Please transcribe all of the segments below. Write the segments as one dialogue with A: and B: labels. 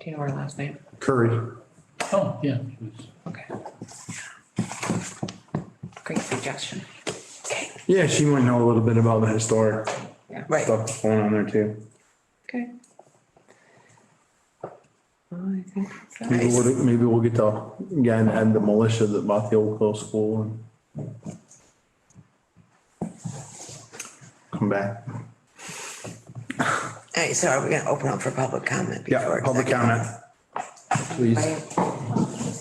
A: Do you know her last name?
B: Curry.
C: Oh, yeah. it was-
A: Okay. Great suggestion. Okay,
B: Yeah, she might know a little bit about the historic
D: Right.
B: stuff that's going on there too.
A: okay. I think that's that.
B: Maybe we'll, maybe we'll get to, again, and the militia that bought the Old Hill School and come back.
D: All right, so are we gonna open up for public comment?
B: Yeah,
D: before
B: public
D: executive?
B: comment. Please.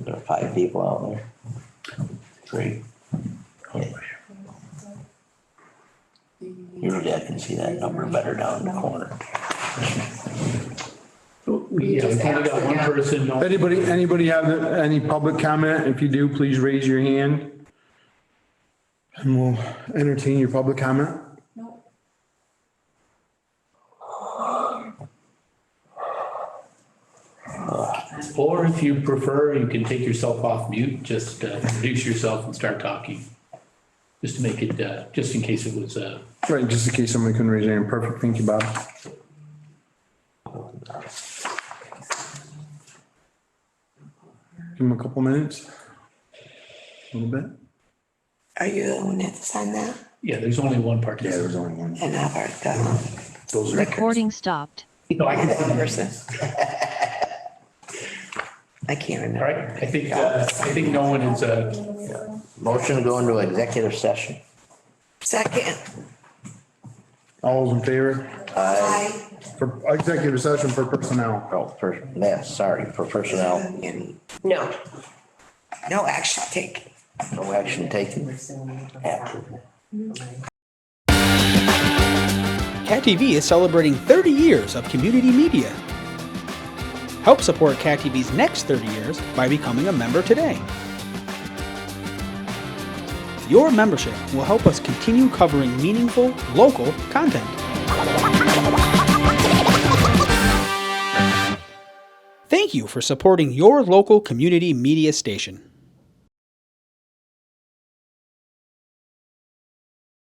E: There are five people out there. Three. Usually I can see that number better down in the corner.
C: We yeah, we probably got one person. no-
B: Anybody, anybody have any public comment? If you do, please raise your hand. And we'll entertain your public comment.
C: Or if you prefer, you can take yourself off mute, just uh, introduce yourself and start talking. Just to make it, uh, just in case it was, uh,
B: Right, just in case somebody couldn't raise their hand. Perfect, thank you, Bob. Give him a couple minutes. A little bit.
D: Are you the one that signed that?
C: yeah, there's only one participant.
B: only one.
D: And I've heard the
B: Those are,
F: Recording stopped.
C: No, I can-
D: one person. I can't
C: All
D: remember.
C: right, I think, uh, I think no one is, uh,
E: Motion to go into executive session.
D: Second.
B: all those in favor
D: Aye.
B: for executive session for personnel?
E: Oh, for, yeah, sorry, for personnel.
D: No. No action taken.
E: No action taken. After.
G: Cat TV is celebrating 30 years of community media. Help support Cat TV's next 30 years by becoming a member today. Your membership will help us continue covering meaningful, local content. Thank you for supporting your local community media station.